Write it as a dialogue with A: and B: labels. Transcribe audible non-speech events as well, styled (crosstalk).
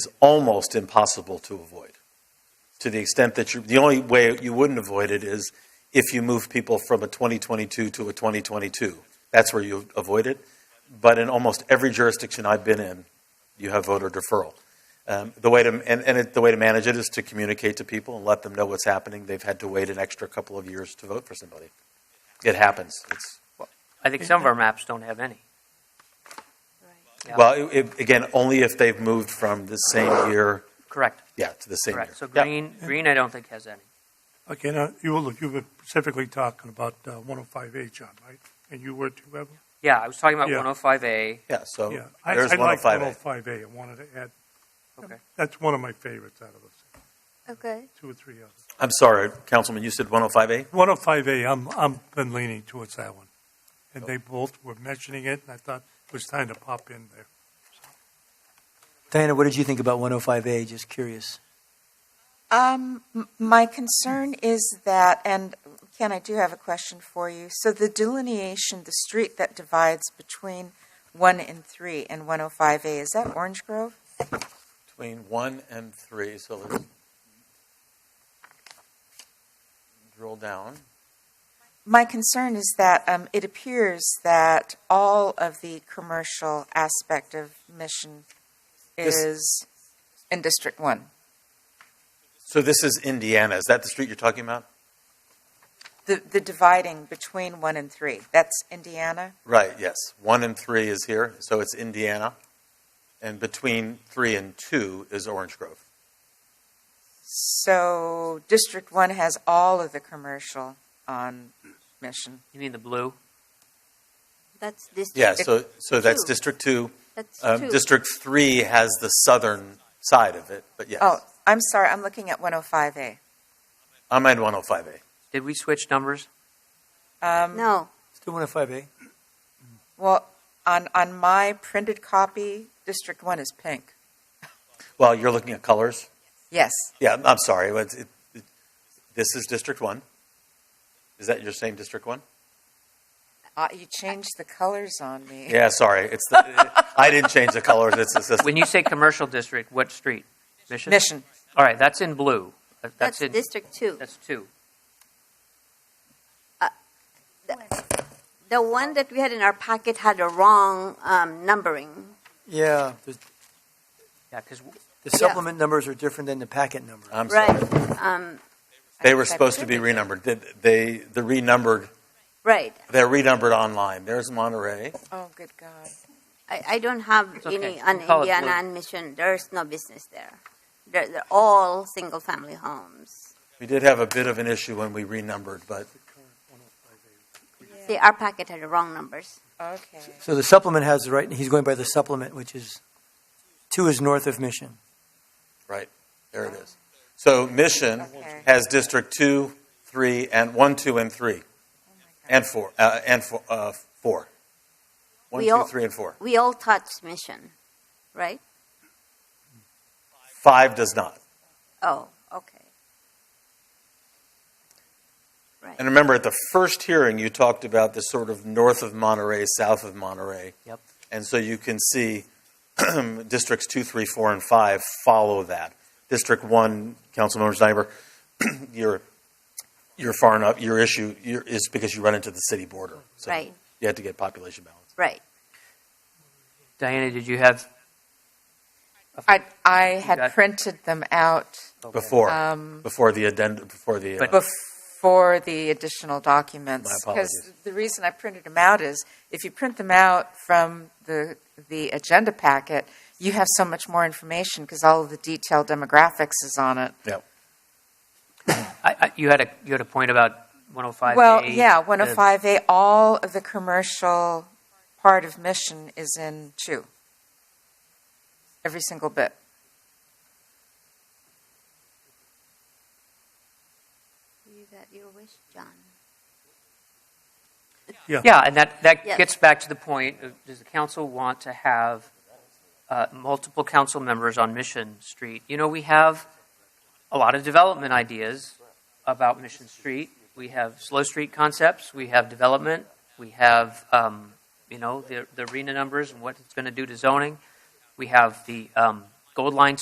A: is almost impossible to avoid. To the extent that you, the only way you wouldn't avoid it is if you move people from a 2022 to a 2022. That's where you avoid it. But in almost every jurisdiction I've been in, you have voter deferral. Um, the way to and, and it, the way to manage it is to communicate to people and let them know what's happening. They've had to wait an extra couple of years to vote for somebody. It happens. It's,
B: I think some of our maps don't have any. Yeah.
A: Well, it, it, again, only if they've moved from the same year,
B: Correct,
A: yeah, to the same year.
B: correct. So
A: Yeah.
B: green, green I don't think has any.
C: Okay, now, you were, look, you were specifically talking about uh, 105A, John, right? And you were too, Evelyn?
B: Yeah, I was talking about
C: Yeah.
B: 105A.
A: Yeah, so
C: Yeah. I-
A: Oh, there's
C: I like
A: 105A.
C: 105A, I wanted to add,
B: Okay.
C: that's one of my favorites out of those,
D: Okay.
C: two or three others.
A: I'm sorry, Councilman, you said 105A?
C: 105A, I'm, I'm been leaning towards that one. And they both were mentioning it, and I thought it was time to pop in there.
E: Diana, what did you think about 105A? Just curious.
D: Um, m- my concern is that, and Ken, I do have a question for you. So the delineation, the street that divides between one and three and 105A, is that Orange Grove?
A: Between 1 and 3, so let's drill down.
D: My concern is that um, it appears that all of the commercial aspect of Mission
A: This-
D: is in District One.
A: So this is Indiana. Is that the street you're talking about?
D: The, the dividing between one and three, that's Indiana?
A: Right, yes. 1 and 3 is here, so it's Indiana. And between 3 and 2 is Orange Grove.
D: So District One has all of the commercial on Mission.
B: You mean the blue?
F: That's this.
A: Yeah, so, so that's
F: Two.
A: District 2.
F: That's
A: Um,
F: two.
A: District 3 has the southern side of it, but yes.
D: Oh, I'm sorry, I'm looking at 105A.
A: I'm at 105A.
B: Did we switch numbers?
D: Um,
F: No,
E: Still 105A?
D: Well, on, on my printed copy, District One is pink.
A: Well, you're looking at colors.
D: Yes,
A: Yeah, I'm sorry. but it, it, this is District 1. Is that your same District 1?
D: Uh, you changed the colors on me.
A: Yeah, sorry. It's the, (laughs) I didn't change the colors. It's the system.
B: When you say commercial district, what street? Mission?
D: Mission.
B: All right, that's in blue. That-
F: that's
B: That's in,
F: District Two.
B: that's two.
F: The one that we had in our packet had a wrong um, numbering.
E: Yeah. The,
B: Yeah, because
E: the
F: Yeah.
E: supplement numbers are different than the packet number.
A: I'm sorry.
F: Right, um,
A: They were supposed to be renumbered. Did they, the renumbered,
F: right.
A: they're renumbered online. There's Monterey.
D: Oh, good God.
F: I, I don't have
B: It's
F: any
B: okay.
F: on
B: We call it
F: Indiana
B: blue.
F: and Mission. There's no business there. They're, they're all single-family homes.
A: We did have a bit of an issue when we renumbered, but
F: See, our packet had the wrong numbers.
D: Okay.
E: So the supplement has the right, he's going by the supplement, which is two is north of Mission.
A: right, there it is. So Mission
D: Okay.
A: has District 2, 3, and 1, 2, and 3, and 4, uh, and 4. Uh, four. 1,
F: We
A: 2,
F: all-
A: 3, and 4.
F: We all touched Mission, right?
A: 5 does not.
F: Oh, okay. Right.
A: And remember, at the first hearing, you talked about the sort of north of Monterey, south of Monterey.
B: Yep.
A: And so you can see (clears throat) districts two, three, four, and five follow that. District one, Councilmember (clears throat) Snyder, your your far enough your issue your, is because you run into the city border. So
F: Right.
A: You had to get population balance.
F: Right.
B: Diana, did you have?
D: I, I
B: You got-
D: had printed them out
B: okay.
A: Before
D: um,
A: before the addendum before the uh,
B: But-
D: before the additional documents.
A: My
D: Because
A: apologies.
D: the reason I printed them out is if you print them out from the, the agenda packet, you have so much more information because all of the detailed demographics is on it.
B: I, I, you had a, you had a point about 105A.
D: Well, yeah,
B: the-
D: 105A, all of the commercial part of Mission is in two. Every single bit.
F: You got your wish, John.
B: Yeah, and that, that
F: Yes.
B: gets back to the point, of, does the council want to have uh, multiple council members on Mission Street? You know, we have a lot of development ideas about Mission Street. We have slow street concepts, we have development, we have, um, you know, the the arena numbers and what it's going to do to zoning. We have the um, Gold Line